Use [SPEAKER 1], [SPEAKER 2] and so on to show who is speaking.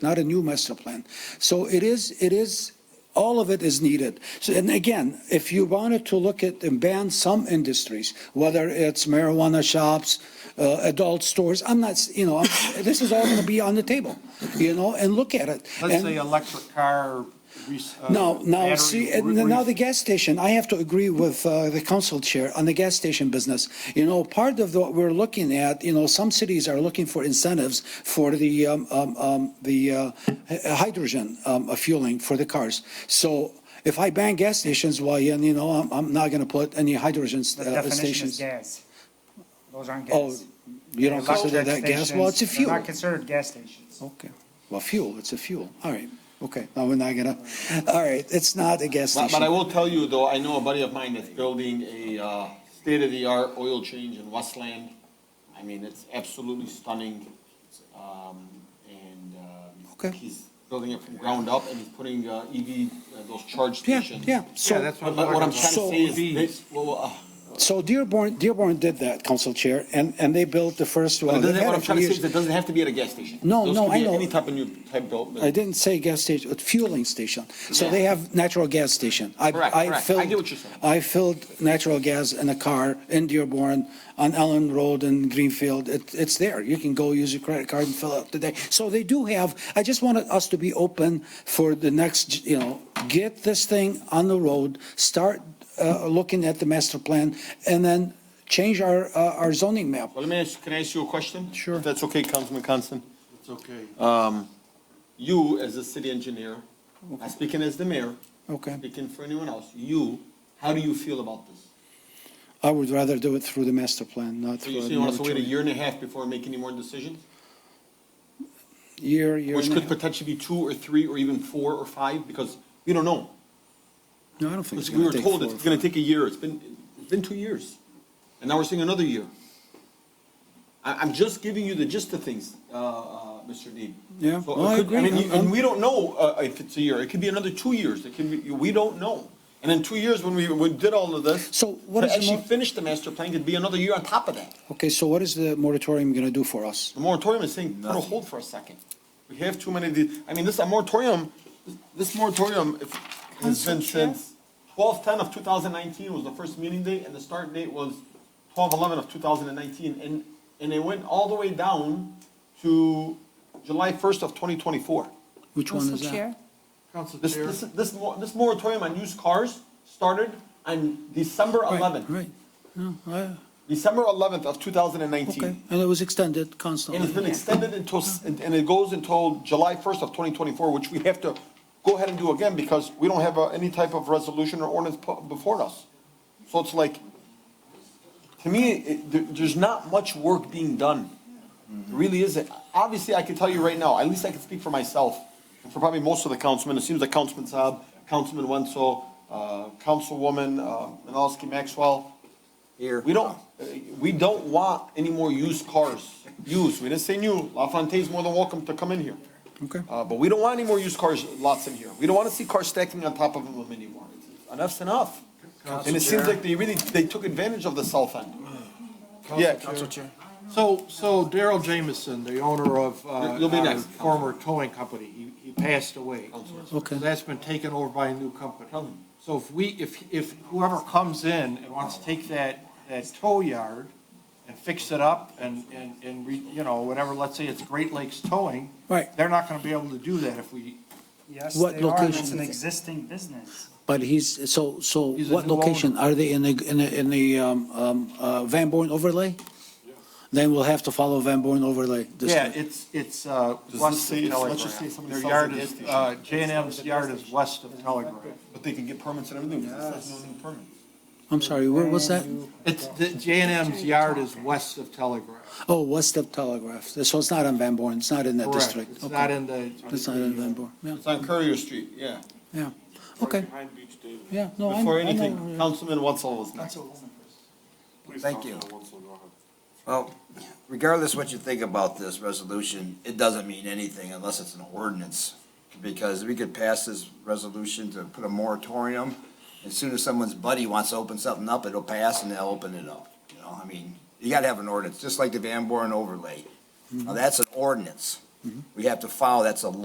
[SPEAKER 1] not a new master plan. So it is, it is, all of it is needed. So, and again, if you wanted to look at and ban some industries, whether it's marijuana shops, uh, adult stores, I'm not, s- you know, I'm- this is all going to be on the table, you know, and look at it.
[SPEAKER 2] Let's
[SPEAKER 1] And-
[SPEAKER 2] say electric car. rec- uh,
[SPEAKER 1] now, now,
[SPEAKER 2] battery
[SPEAKER 1] see,
[SPEAKER 2] re-
[SPEAKER 1] and now
[SPEAKER 2] re-
[SPEAKER 1] the gas station, I have to agree with uh, the council chair on the gas station business. You know, part of the- what we're looking at, you know, some cities are looking for incentives for the, um, um, um, the uh, hy- hydrogen um, uh, fueling for the cars. So if I ban gas stations, well, yeah, you know, I'm, I'm not going to put any hydrogen s-
[SPEAKER 3] The
[SPEAKER 1] uh,
[SPEAKER 3] definition is
[SPEAKER 1] stations.
[SPEAKER 3] gas. Those aren't
[SPEAKER 1] Oh,
[SPEAKER 3] gas.
[SPEAKER 1] you don't consider that
[SPEAKER 3] Electric
[SPEAKER 1] gas? Well, it's a
[SPEAKER 3] stations,
[SPEAKER 1] fuel.
[SPEAKER 3] They're not considered gas stations.
[SPEAKER 1] Okay, well, fuel, it's a fuel, all right, okay, now we're not gonna, all right, it's not a gas
[SPEAKER 4] But,
[SPEAKER 1] station.
[SPEAKER 4] but I will tell you though, I know a buddy of mine that's building a, uh, state-of-the-art oil change in Westland. I mean, it's absolutely stunning, um, and, uh,
[SPEAKER 1] Okay.
[SPEAKER 4] he's building it from ground up and he's putting, uh, EV, uh, those charge
[SPEAKER 1] Yeah,
[SPEAKER 4] stations.
[SPEAKER 1] yeah, so.
[SPEAKER 2] Yeah, that's
[SPEAKER 4] But, but what I'm trying
[SPEAKER 1] So-
[SPEAKER 4] to say is,
[SPEAKER 2] EVs.
[SPEAKER 4] they- well, uh,
[SPEAKER 1] So Dearborn, Dearborn did that, Council Chair, and, and they built the first
[SPEAKER 4] but
[SPEAKER 1] one.
[SPEAKER 4] it doesn't-
[SPEAKER 1] They've had
[SPEAKER 4] what
[SPEAKER 1] it
[SPEAKER 4] I'm
[SPEAKER 1] for
[SPEAKER 4] trying to say
[SPEAKER 1] years.
[SPEAKER 4] is it doesn't have to be at a gas station.
[SPEAKER 1] No,
[SPEAKER 4] Those
[SPEAKER 1] no,
[SPEAKER 4] could be
[SPEAKER 1] I
[SPEAKER 4] at
[SPEAKER 1] know.
[SPEAKER 4] Any type of new type built.
[SPEAKER 1] I didn't say gas station, but fueling station. So they have natural gas station. I-
[SPEAKER 4] Correct,
[SPEAKER 1] I
[SPEAKER 4] correct. I
[SPEAKER 1] filled-
[SPEAKER 4] get what you're saying.
[SPEAKER 1] I filled natural gas in a car in Dearborn, on Ellen Road in Greenfield. It, it's there. You can go use your credit card and fill out today. So they do have, I just wanted us to be open for the next, you know, get this thing on the road, start, uh, looking at the master plan, and then change our, uh, our zoning map.
[SPEAKER 4] Well, let me ask, can I ask you a question?
[SPEAKER 1] Sure.
[SPEAKER 4] If that's okay, Councilman Constant?
[SPEAKER 2] It's okay.
[SPEAKER 4] You, as a city engineer, not speaking as the mayor,
[SPEAKER 1] Okay.
[SPEAKER 4] speaking for anyone else, you, how do you feel about this?
[SPEAKER 1] I would rather do it through the master plan, not
[SPEAKER 4] So
[SPEAKER 1] through.
[SPEAKER 4] you
[SPEAKER 1] a
[SPEAKER 4] say you want us to wait a
[SPEAKER 1] moratorium.
[SPEAKER 4] year and a half before we make any more decisions?
[SPEAKER 1] Year, year
[SPEAKER 4] Which
[SPEAKER 1] and a
[SPEAKER 4] could
[SPEAKER 1] half.
[SPEAKER 4] potentially be two or three or even four or five, because we don't know.
[SPEAKER 1] No, I don't think it's
[SPEAKER 4] We
[SPEAKER 1] gonna
[SPEAKER 4] were
[SPEAKER 1] take
[SPEAKER 4] told
[SPEAKER 1] four.
[SPEAKER 4] it's gonna take a year, it's been, it's been two years, and now we're seeing another year. I, I'm just giving you the gist of things, uh, uh, Mr. Deeb.
[SPEAKER 1] Yeah,
[SPEAKER 4] So it
[SPEAKER 1] no, I
[SPEAKER 4] could-
[SPEAKER 1] agree.
[SPEAKER 4] mean, you-
[SPEAKER 1] I'm- I'm-
[SPEAKER 4] and we don't know, uh, if it's a year, it could be another two years, it could be, we don't know. And in two years, when we, we did all of this.
[SPEAKER 1] So what
[SPEAKER 4] to
[SPEAKER 1] is the
[SPEAKER 4] Actually
[SPEAKER 1] mo-
[SPEAKER 4] finish the master plan, could be another year on top of that.
[SPEAKER 1] Okay, so what is the moratorium gonna do for us?
[SPEAKER 4] The moratorium is saying, put a hold for a second. We have too many, of these. I mean, this, a moratorium, this moratorium if- has been since twelve ten of two thousand nineteen was the first meeting date, and the start date was twelve eleven of two thousand and nineteen, and, and it went all the way down to July first of twenty twenty-four.
[SPEAKER 1] Which one
[SPEAKER 5] Council
[SPEAKER 1] is that?
[SPEAKER 5] Chair?
[SPEAKER 2] Council
[SPEAKER 4] This,
[SPEAKER 2] Chair,
[SPEAKER 4] this, this, mor- this moratorium on used cars started on December
[SPEAKER 1] Right,
[SPEAKER 4] eleventh,
[SPEAKER 1] Right, no, I,
[SPEAKER 4] December eleventh of two thousand and
[SPEAKER 1] okay,
[SPEAKER 4] nineteen.
[SPEAKER 1] and it was extended
[SPEAKER 4] And it's
[SPEAKER 1] constantly.
[SPEAKER 4] been extended until, s- and and it goes until July 1st of 2024, which we have to go ahead and do again because we don't have uh, any type of resolution or ordinance pu- before us. So it's like, to me, it- there- there's not much work being done. There Really isn't. Obviously, I can tell you right now, at least I can speak for myself and for probably most of the councilmen. It seems like Councilman Saab, Councilman Wenzel, uh, Councilwoman uh, Menalowski Maxwell, we don't, uh, we don't want any more used cars. Used, we didn't say new. La Fontaine's more than welcome to come in here.
[SPEAKER 1] Okay,
[SPEAKER 4] Uh, but we don't want any more used cars lots in here. We don't want to see cars stacking on top of them anymore. Enough's enough. And it seems like they really, they took advantage of the south end. Yeah.
[SPEAKER 2] Council so, so Daryl Jamison, the owner of, uh,
[SPEAKER 4] You'll be
[SPEAKER 2] our
[SPEAKER 4] next, Council.
[SPEAKER 2] former towing company, he, he passed away.
[SPEAKER 1] Okay.
[SPEAKER 2] So That's been taken over by a new company.
[SPEAKER 4] Council.
[SPEAKER 2] So if we, if, if whoever comes in and wants to take that, that tow yard and fix it up and, and, and re, you know, whatever, let's say it's Great Lakes Towing.
[SPEAKER 1] Right.
[SPEAKER 2] They're not gonna be able to do that if we,
[SPEAKER 3] Yes,
[SPEAKER 1] What
[SPEAKER 3] they are, and it's
[SPEAKER 1] location
[SPEAKER 3] an
[SPEAKER 1] is it?
[SPEAKER 3] existing business.
[SPEAKER 1] but he's, so, so
[SPEAKER 2] He's a
[SPEAKER 1] what
[SPEAKER 2] new owner.
[SPEAKER 1] location? Are they in the, in the, in the, um, um, uh, Van Born overlay? Then we'll have to follow Van Born overlay. this
[SPEAKER 2] Yeah,
[SPEAKER 1] time.
[SPEAKER 2] it's, it's, uh,
[SPEAKER 4] this
[SPEAKER 2] west of
[SPEAKER 4] say- let's just say
[SPEAKER 2] Telegraph.
[SPEAKER 4] somebody
[SPEAKER 2] Their
[SPEAKER 4] sells
[SPEAKER 2] yard
[SPEAKER 4] a gas
[SPEAKER 2] is,
[SPEAKER 4] station.
[SPEAKER 2] uh, J and M's yard is west of Telegraph.
[SPEAKER 4] But they can get permits and everything. That's no new permits.
[SPEAKER 1] I'm sorry, where was that?
[SPEAKER 2] It's, the J and M's yard is west of Telegraph.
[SPEAKER 1] Oh, West of Telegraph, so it's not on Van Born, it's not in that
[SPEAKER 2] Correct.
[SPEAKER 1] district.
[SPEAKER 2] It's
[SPEAKER 1] Okay.
[SPEAKER 2] not in the.
[SPEAKER 1] It's not in Van Born, yeah,
[SPEAKER 4] It's on Courier Street, yeah.
[SPEAKER 1] yeah, okay. Yeah, no, I
[SPEAKER 4] Before
[SPEAKER 1] I know
[SPEAKER 4] anything, Councilman Wetzel was next.
[SPEAKER 6] Thank you. Well, regardless what you think about this resolution, it doesn't mean anything unless it's an ordinance. Because we could pass this resolution to put a moratorium, as soon as someone's buddy wants to open something up, it'll pass and they'll open it up. You know, I mean, you gotta have an ordinance, just like the Van Born overlay. Now, that's an ordinance. We have to follow, that's a